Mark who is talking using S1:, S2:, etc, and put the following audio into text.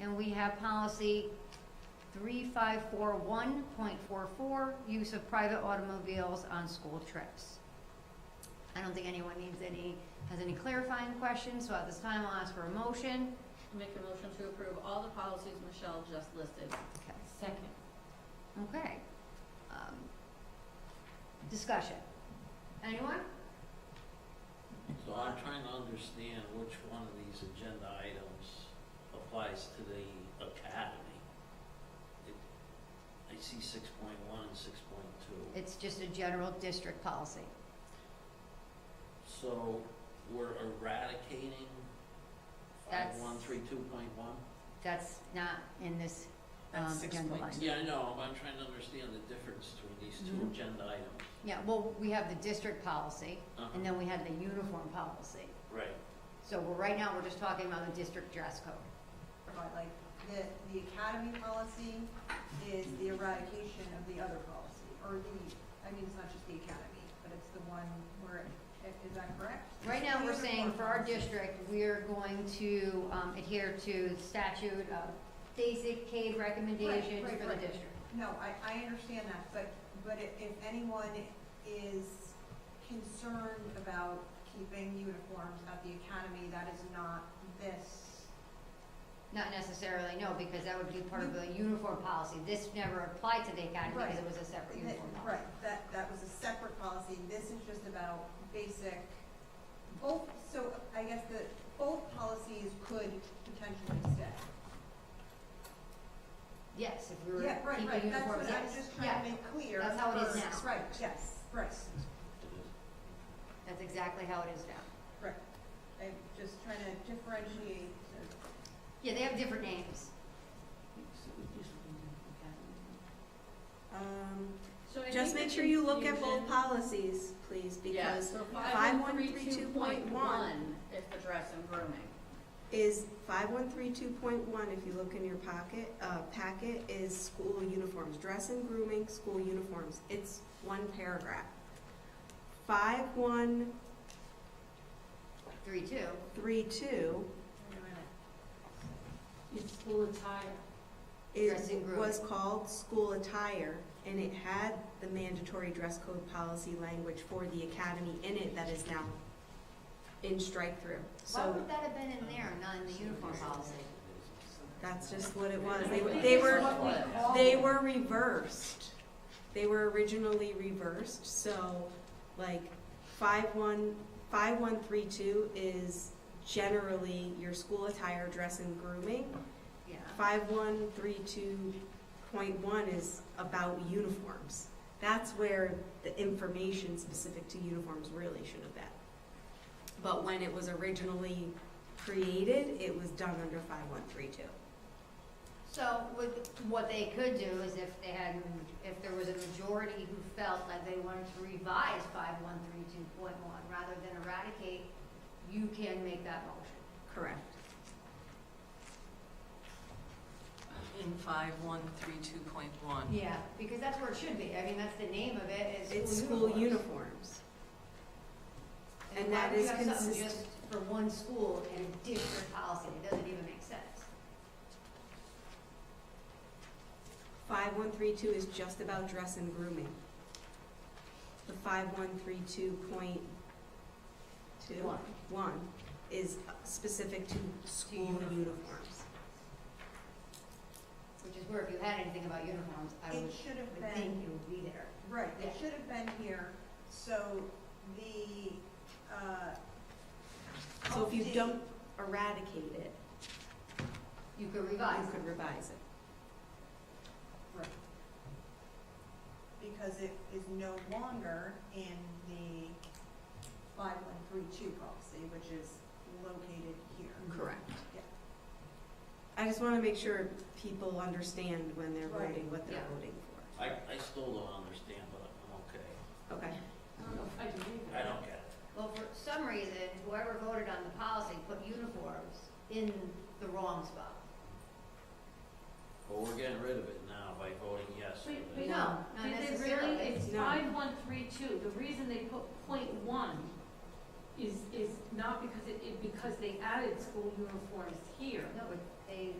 S1: And we have policy 3541.44, use of private automobiles on school trips. I don't think anyone needs any, has any clarifying questions, so at this time, I'll ask for a motion.
S2: Make a motion to approve all the policies Michelle just listed. Second.
S1: Okay. Um, Discussion. Anyone?
S3: So I'm trying to understand which one of these agenda items applies to the academy. It- I see six point one and six point two.
S1: It's just a general district policy.
S3: So we're eradicating five
S1: That's-
S3: one three two point one?
S1: That's not in this um, agenda line.
S3: Yeah, I know, but I'm trying to understand the difference between these two
S1: Mhm.
S3: agenda items.
S1: Yeah, well, we have the district policy,
S3: Uh-huh,
S1: and then we have the uniform policy.
S3: Right,
S1: So we're, right now, we're just talking about the district dress code.
S4: Right, like, the, the academy policy is the eradication of the other policy, or the, I mean, it's not just the academy, but it's the one where, is that correct?
S1: Right now, we're
S4: The
S1: saying for our
S4: uniform
S1: district, we're going to um, adhere to the statute of basic CADE recommendations
S4: right,
S1: for the
S4: right.
S1: district.
S4: policy. No, I, I understand that, but, but i- if anyone is concerned about keeping uniforms at the academy, that is not this.
S1: Not necessarily, no, because that would be part of the uniform policy. This never applied to the academy because it
S4: Right.
S1: was a separate
S4: That-
S1: uniform policy.
S4: Right, that, that was a separate policy, this is just about basic, both, so I guess the, both policies could potentially stay.
S1: Yes, if we were
S4: Yeah, right, right,
S1: keeping
S4: that's
S1: uniforms,
S4: what I'm
S1: yes,
S4: just
S1: yeah,
S4: trying to make clear.
S1: That's how it is
S4: for-
S1: now.
S4: Right, yes, right,
S3: it is.
S1: that's exactly how it is now.
S4: right. I'm just trying to differentiate, the-
S1: Yeah, they have different names.
S5: Um,
S2: So I
S5: Just
S2: think
S5: make
S2: the
S5: sure you look at both
S2: confusion-
S5: policies, please,
S2: Yeah,
S5: because
S2: so
S5: 5132.1
S2: is the dress and grooming.
S5: is, 5132.1, if you look in your pocket, uh, packet, is school uniforms, dress and grooming, school uniforms. It's one paragraph. 5132
S1: Three, two.
S4: wait a minute,
S2: It's school attire.
S1: Dress
S5: is,
S1: and grooming.
S5: was called school attire, and it had the mandatory dress code policy language for the academy in it that is now in strike-through.
S1: Why
S5: So
S1: would that have been in there, and not in the uniform policy?
S5: That's just what it was. They, they were, they were reversed. They were originally reversed, so like five one, five one three two is generally your school attire, dress and grooming.
S1: Yeah.
S5: Five one three two point one is about uniforms. That's where the information specific to uniforms really should have been. But when it was originally created, it was done under five one three two.
S1: So would, what they could do is if they had, if there was a majority who felt that they wanted to revise five one three two point one rather than eradicate, you can make that motion.
S5: Correct.
S6: In five one three two point one.
S1: Yeah. Because that's where it should be. I mean, that's the name of it,
S5: It's
S1: is
S5: school
S1: school uniforms.
S5: uniforms. and
S1: why
S5: that
S1: would you
S5: is
S1: have something
S5: consist-
S1: Just for one school and a district policy, it doesn't even make sense.
S5: Five one three two is just about dress and grooming. The five one three two point two
S1: One.
S5: one is specific to school
S1: uniforms.
S5: uniforms.
S1: Which is where if you had anything about uniforms, I would,
S4: it should have
S1: would think
S4: been,
S1: it would be there.
S4: right, it
S1: Yeah.
S4: should have been here, so the, uh.
S5: So if you
S1: Oh,
S4: policy-
S5: don't eradicate it,
S1: You could revise
S5: you
S1: it.
S5: could revise it.
S4: Right. Because it is no longer in the five one three two policy, which is located here.
S1: Mm-hmm.
S5: Correct.
S4: Yeah.
S5: I just wanna make sure people understand when they're
S4: Right.
S5: voting, what they're
S1: Yeah.
S5: voting
S3: I, I still don't understand, but I'm okay.
S5: for. Okay.
S3: I don't get it.
S1: Well, for some reason, whoever voted on the policy put uniforms in the wrong spot.
S3: But we're getting rid of it now by voting yes. for
S7: Wait,
S3: this.
S7: wait,
S1: No,
S7: no,
S1: not
S7: did they really,
S1: necessarily.
S7: it's
S5: No.
S7: five, one, three, two, the reason they put point one is, is not because it, it, because they added school uniforms here.
S1: No, but they